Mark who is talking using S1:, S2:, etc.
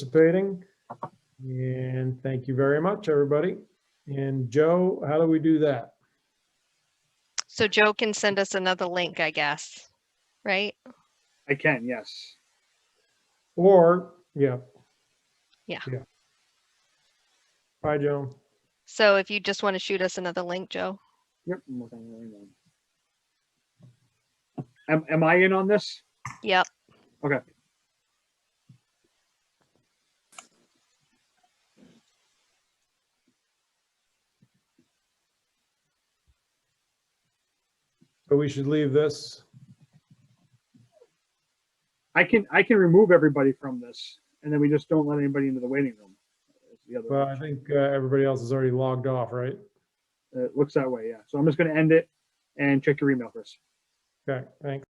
S1: participating. And thank you very much, everybody. And Joe, how do we do that?
S2: So Joe can send us another link, I guess, right?
S3: I can, yes.
S1: Or, yeah.
S2: Yeah.
S1: Bye, Joe.
S2: So if you just want to shoot us another link, Joe.
S3: Yep. I'm looking at it right now. Am, am I in on this?
S2: Yep.
S1: So we should leave this.
S3: I can, I can remove everybody from this and then we just don't let anybody into the waiting room. It's the other
S1: Well, I think uh, everybody else is already logged off, right?
S3: It looks that way, yeah. So I'm just gonna end it and check your email, Chris.
S1: Okay, thanks.